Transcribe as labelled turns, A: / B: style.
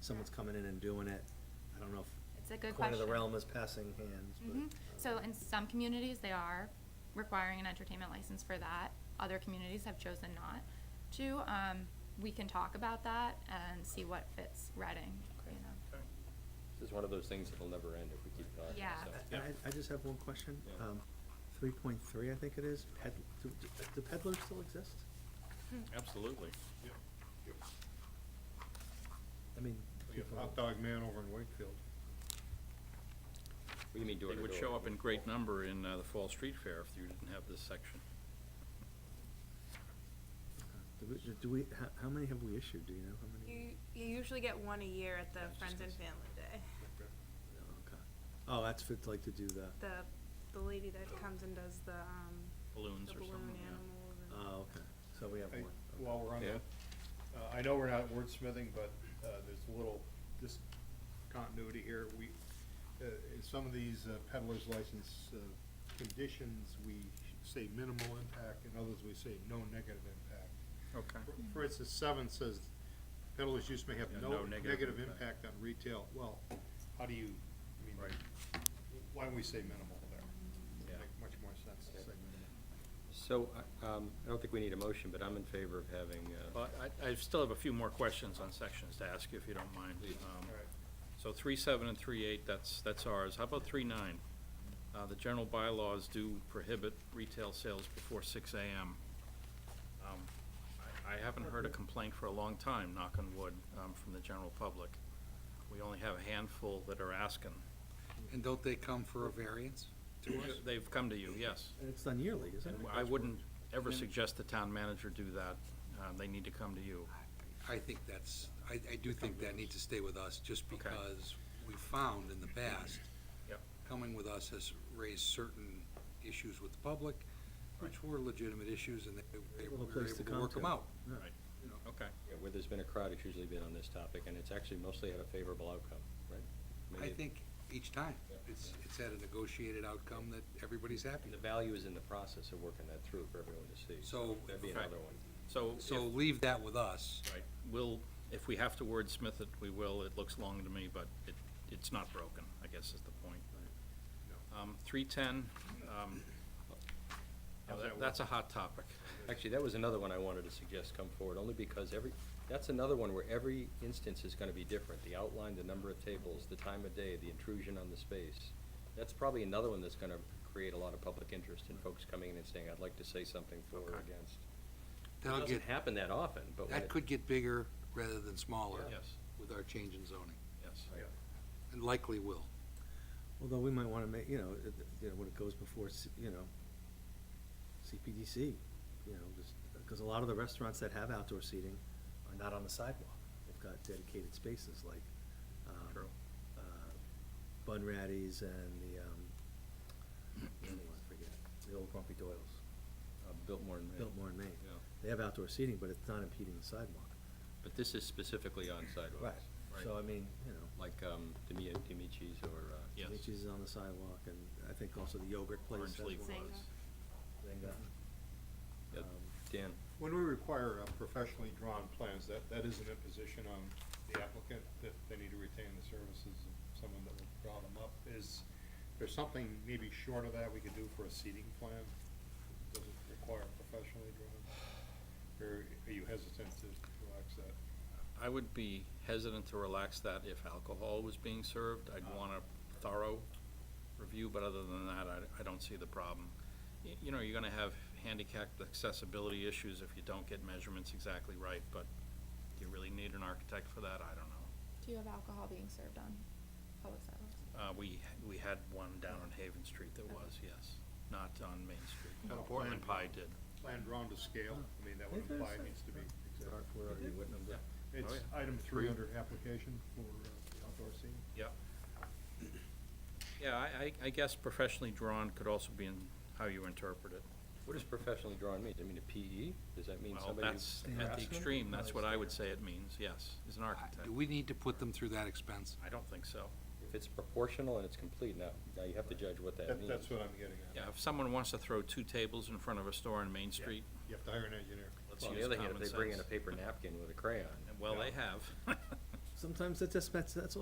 A: someone's coming in and doing it. I don't know if
B: It's a good
A: coin
B: question.
A: of the realm is passing hands, but.
B: Mhm. So
A: um,
B: in some communities, they are requiring an entertainment license for that. Other communities have chosen not to. Um, we can talk about that and see what fits Reading, you know.
C: This is one of those things that'll never end if we keep talking, so.
B: Yeah.
A: I, I- I just have one question. Um,
C: Yeah.
A: Three point three, I think it is, ped, do, do- do peddlers still exist?
B: Hmm.
D: Absolutely.
A: I mean.
E: Yeah,
A: people-
E: Hot dog man over in Wakefield.
C: What do you mean door
D: They
C: to door?
D: would show up in great number in uh, the Fall Street Fair if you didn't have this section.
A: Do we, do we, how, how many have we issued, do you know how
F: You,
A: many?
F: you usually get one a year at the
D: Yeah, I was just
F: Friends and
D: gonna
F: Family Day.
A: Oh, okay. Oh, that's for, like, to do the,
F: The, the lady that comes and does the, um,
D: Balloons
F: the
D: or
F: balloon
D: something, yeah.
F: animals and.
A: oh, okay, so we have
E: Hey,
A: one. okay.
E: While we're on
C: Yeah.
E: that, uh, I know we're not wordsmithing, but, uh, there's a little discontinuity here. We, uh, in some of these uh, peddler's license, uh, conditions, we say minimal impact, and others we say no negative impact.
D: Okay.
E: For- For instance, seven says peddler's use may have
D: Yeah,
E: no negative impact on retail. Well, how do you, I mean,
D: Right.
E: why don't we say minimal there?
D: Yeah.
E: Make much more sense to say minimal.
C: So, I- um, I don't think we need a motion, but I'm in favor of having, uh,
D: But I, I still have a few more questions on sections to ask you, if you don't mind. Um,
E: All right.
D: So three seven and three eight, that's, that's ours. How about three nine? Uh, the general bylaws do prohibit retail sales before six AM. Um, I, I haven't heard a complaint for a long time, knock on wood, um, from the general public. We only have a handful that are asking.
G: And don't they come for a variance?
D: They've come to you, yes.
A: And it's done yearly, isn't it?
D: And I wouldn't ever suggest the town manager do that. Uh, they need to come to you.
G: I think that's, I, I do think that needs to stay with us, just
D: Okay.
G: because we found in the past,
D: Yep.
G: coming with us has raised certain issues with the public, which were legitimate issues, and they, they
A: Little
G: were
A: place to
G: able to
A: come
G: work them
A: to.
G: out.
A: Yeah.
D: Right. Okay.
C: yeah, where there's been a crowd, it's usually been on this topic, and it's actually mostly had a favorable outcome, right? mean,
G: I
C: it-
G: think each time,
C: Yeah.
G: it's, it's had a negotiated outcome that everybody's happy
C: The
G: with.
C: value is in the process of working that through for everyone to see.
G: So-
C: That'd be
D: Okay.
C: another one.
D: So,
G: So
D: if-
G: leave that with us.
D: right, we'll, if we have to wordsmith it, we will. It looks long to me, but it, it's not broken, I guess is the point. Um, three-ten, um,
E: How's
D: that-
E: that work?
D: that's a hot topic.
C: Actually, that was another one I wanted to suggest come forward, only because every, that's another one where every instance is gonna be different. The outline, the number of tables, the time of day, the intrusion on the space. That's probably another one that's gonna create a lot of public interest and folks coming in and saying, I'd like to say something for or
D: Okay.
C: against. It
G: That'll
C: doesn't
G: get,
C: happen that often, but when
G: that
C: it,
G: could get bigger rather than smaller.
D: Yeah. Yes.
G: With our change in zoning,
D: Yes.
G: and likely will.
A: Although we might wanna make, you know, it, you know, when it goes before, C- you know, CPDC, you know, just, cause a lot of the restaurants that have outdoor seating are not on the sidewalk. They've got dedicated spaces like, um,
D: True.
A: uh, Bunratty's and the, um, the other one, I forget, the old Grumpy Doyle's,
C: uh, Biltmore and Maine.
A: Biltmore in Maine.
C: Yeah.
A: They have outdoor seating, but it's not impeding the sidewalk.
C: But this is specifically on sidewalks.
A: So I mean, you know.
C: Like, um, Demi, Demici's or, uh,
D: Yes.
A: Which is on the sidewalk, and I think also the yogurt place.
D: Orange
A: that's
D: Leaf
A: one.
D: was.
A: Zinga.
C: yeah,
A: uh, Um,
C: Dan.
E: When we require uh, professionally drawn plans, that, that is an imposition on the applicant, that they need to retain the services of someone that will draw them up. Is there something maybe short of that we could do for a seating plan? Does it require professionally drawn? Or are you hesitant to relax that?
D: I would be hesitant to relax that if alcohol was being served. I'd want a thorough review, but other than that, I, I don't see the problem. Y- You know, you're gonna have handicapped accessibility issues if you don't get measurements exactly right, but do you really need an architect for that? I don't know.
B: Do you have alcohol being served on public sidewalks?
D: Uh, we, we had one down on Haven Street that was, yes, not on Main Street.
E: Not a
D: Portland Pie
E: plan.
D: did.
E: Plan drawn to scale, I mean, that would
A: Is there
E: imply
A: some-
E: it needs to be.
A: Art, where are you? What number? Oh,
E: It's item three under application for uh, the outdoor seating.
D: Yeah. Yeah, I, I, I guess professionally drawn could also be in how you interpret it.
C: What does professionally drawn mean? Does it mean a PE? Does that mean
D: Well,
C: somebody? who-
D: that's at the
A: Craftsman?
D: extreme, that's
A: Nice.
D: what I would say it means, yes, as an architect.
G: Do we need to put them through that expense?
D: I don't think so.
C: If it's proportional and it's complete, now, now you have to judge what that
E: That,
C: means.
E: that's what I'm getting at.
D: Yeah, if someone wants to throw two tables in front of a store on Main Street,
E: You have to hire an engineer.
D: let's
C: Well, on
D: use
C: the other
D: common
C: hand, if they bring in a
D: sense.
C: paper napkin with a crayon,
D: And Well, they have.
A: sometimes that's, that's, that's all